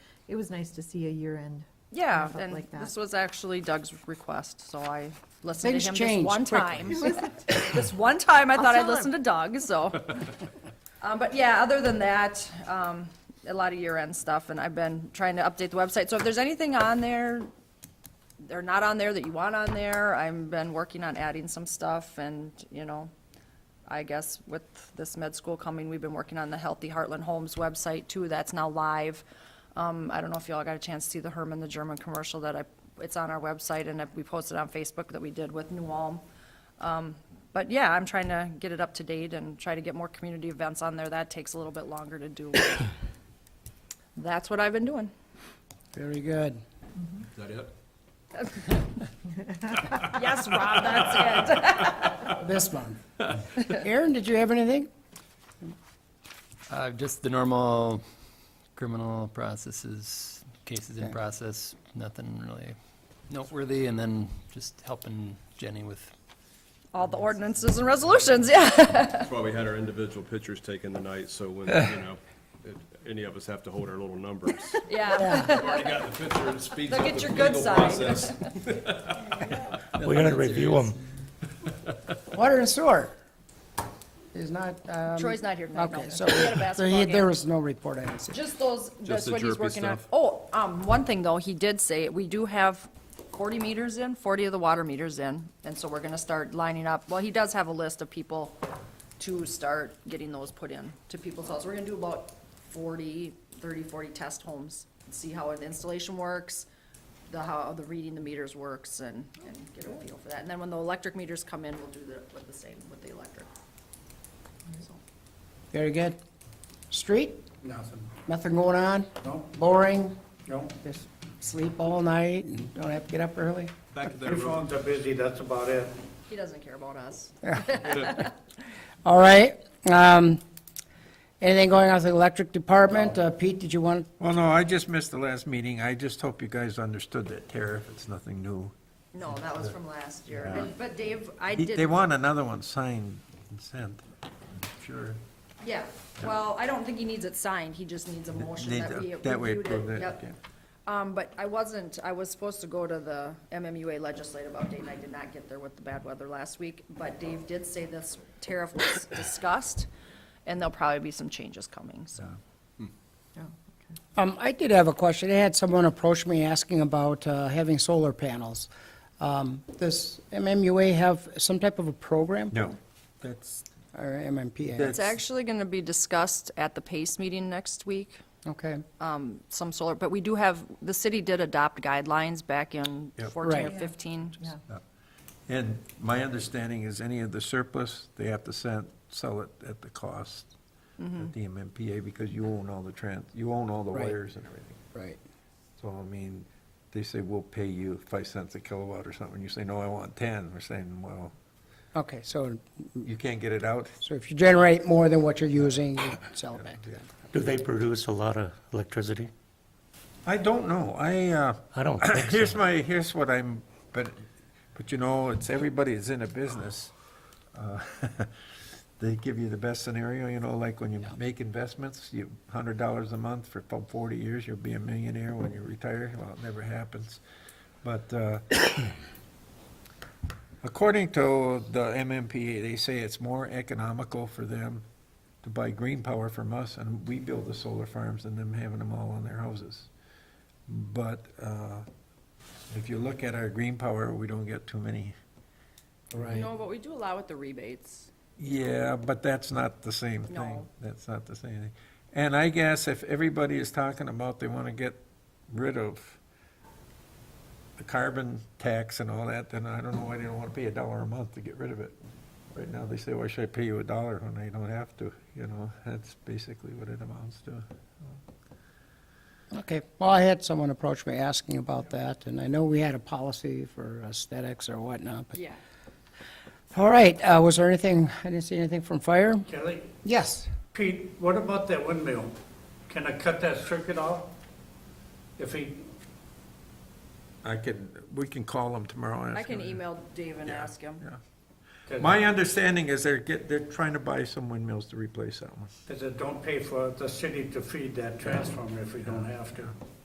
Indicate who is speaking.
Speaker 1: It was nice to see a year-end.
Speaker 2: Yeah,
Speaker 1: Stuff
Speaker 2: and
Speaker 1: like that.
Speaker 2: this was actually Doug's request, so I listened
Speaker 3: Things
Speaker 2: to him this
Speaker 3: change
Speaker 2: one
Speaker 3: quickly.
Speaker 2: time. This one time, I thought I'd
Speaker 1: tell him.
Speaker 2: listen to Doug, so. Um, but yeah, other than that, um, a lot of year-end stuff, and I've been trying to update the website. So if there's anything on there, they're not on there that you want on there, I've been working on adding some stuff, and, you know, I guess with this med school coming, we've been working on the Healthy Heartland Homes website too, that's now live. Um, I don't know if y'all got a chance to see the Herman the German commercial that I, it's on our website and we posted on Facebook that we did with New Ulm. Um, but yeah, I'm trying to get it up to date and try to get more community events on there, that takes a little bit longer to do. That's what I've been doing.
Speaker 3: Very good.
Speaker 4: Is that it?
Speaker 2: Yes, Rob, that's it.
Speaker 3: This one. Aaron, did you have anything?
Speaker 5: Uh, just the normal criminal processes, cases in
Speaker 3: Okay.
Speaker 5: process, nothing really noteworthy, and then just helping Jenny with,
Speaker 2: All the ordinances and resolutions, yeah.
Speaker 4: That's why we had our individual pictures taken tonight, so when, you know, if any of us have to hold our little numbers.
Speaker 2: Yeah.
Speaker 4: I've Already got the picture and speaks
Speaker 2: Look
Speaker 4: up
Speaker 2: at
Speaker 4: the
Speaker 2: your good
Speaker 4: legal
Speaker 2: side.
Speaker 4: process.
Speaker 6: We're gonna review them.
Speaker 3: Water and sewer is not, um.
Speaker 2: Troy's not here tonight, no.
Speaker 3: Okay, so,
Speaker 2: He had a
Speaker 3: so
Speaker 2: basketball
Speaker 3: he,
Speaker 2: game.
Speaker 3: there was no report, I didn't see.
Speaker 2: Just those, that's
Speaker 4: the
Speaker 2: what he's
Speaker 4: jerky
Speaker 2: working on.
Speaker 4: stuff.
Speaker 2: Oh, um, one thing though, he did say, we do have forty meters in, forty of the water meters in, and so we're gonna start lining up. Well, he does have a list of people to start getting those put in to people's houses. We're gonna do about 40, 30, 40 test homes, see how the installation works, the, how the reading the meters works and, and get a feel for that. And then when the electric meters come in, we'll do the, with the same, with the electric. So.
Speaker 3: Very good. Street? Nothing. Nothing going on? No. Boring? No. Just sleep all night and don't have to get up early?
Speaker 4: Back to that
Speaker 6: Your
Speaker 4: road.
Speaker 6: phones are busy, that's about it.
Speaker 2: He doesn't care about us.
Speaker 3: All right, um, anything going on with the electric department? Uh, Pete, did you want,
Speaker 6: Well, no, I just missed the last meeting. I just hope you guys understood that tariff. It's nothing new.
Speaker 2: No, that was from last year. And- But Dave, I
Speaker 6: He-
Speaker 2: did.
Speaker 6: They want another one signed and sent. Sure.
Speaker 2: Yeah, well, I don't think he needs it signed, he just needs a motion
Speaker 6: They-
Speaker 2: that we
Speaker 6: That way
Speaker 2: reviewed
Speaker 6: approve
Speaker 2: it.
Speaker 6: it.
Speaker 2: Yep.
Speaker 6: yeah.
Speaker 2: Um, but I wasn't, I was supposed to go to the MMUA legislative update, and I did not get there with the bad weather last week. But Dave did say this tariff was discussed, and there'll probably be some changes coming, so.
Speaker 3: um, I did have a question. I had someone approach me asking about, uh, having solar panels. Um, does MMUA have some type of a program?
Speaker 6: No, that's,
Speaker 3: Or MMPA?
Speaker 6: That's-
Speaker 2: It's actually gonna be discussed at the PACE meeting next week.
Speaker 3: Okay,
Speaker 2: um, some solar, but we do have, the city did adopt guidelines back in
Speaker 6: Yep.
Speaker 2: fourteen or
Speaker 3: Right.
Speaker 2: fifteen.
Speaker 1: Yeah.
Speaker 6: and my understanding is any of the surplus, they have to send, sell it at the cost at the MMPA because you own all the trans, you own all the
Speaker 3: Right.
Speaker 6: wires and everything.
Speaker 3: right.
Speaker 6: So, I mean, they say, we'll pay you five cents a kilowatt or something, you say, no, I want ten, we're saying, well,
Speaker 3: Okay, so,
Speaker 6: you can't get it out.
Speaker 3: so if you generate more than what you're using, you sell it back to them.
Speaker 7: Do they produce a lot of electricity?
Speaker 6: I don't know, I, uh,
Speaker 7: I don't think so.
Speaker 6: here's my, here's what I'm, but, but you know, it's, everybody is in a business. Uh, They give you the best scenario, you know, like when you make investments, you, hundred dollars a month for fo- forty years, you'll be a millionaire when you retire, well, it never happens. But, uh, According to the MMPA, they say it's more economical for them to buy green power from us and we build the solar farms than them having them all on their houses. But uh, if you look at our green power, we don't get too many.
Speaker 3: Right.
Speaker 2: but we do allow with the rebates.
Speaker 6: Yeah, but that's not the same thing.
Speaker 2: No.
Speaker 6: That's not the same thing. And I guess if everybody is talking about they want to get rid of the carbon tax and all that, then I don't know why they don't want to pay a dollar a month to get rid of it. Right now, they say, why should I pay you a dollar when I don't have to? You know, that's basically what it amounts to.
Speaker 3: Okay, well, I had someone approach me asking about that, and I know we had a policy for aesthetics or whatnot, but.
Speaker 2: Yeah.
Speaker 3: All right, uh, was there anything, I didn't see anything from fire?
Speaker 8: Kelly,
Speaker 3: Yes.
Speaker 8: Pete, what about that windmill? Can I cut that circuit off? If he,
Speaker 6: I can, we can call them tomorrow and
Speaker 2: I
Speaker 6: ask
Speaker 2: can
Speaker 6: them.
Speaker 2: email Dave and
Speaker 6: Yeah,
Speaker 2: ask him.
Speaker 6: yeah.
Speaker 8: 'cause-
Speaker 6: My understanding is they're get, they're trying to buy some windmills to replace that one.
Speaker 8: cause it don't pay for the city to feed that transformer if we don't have to.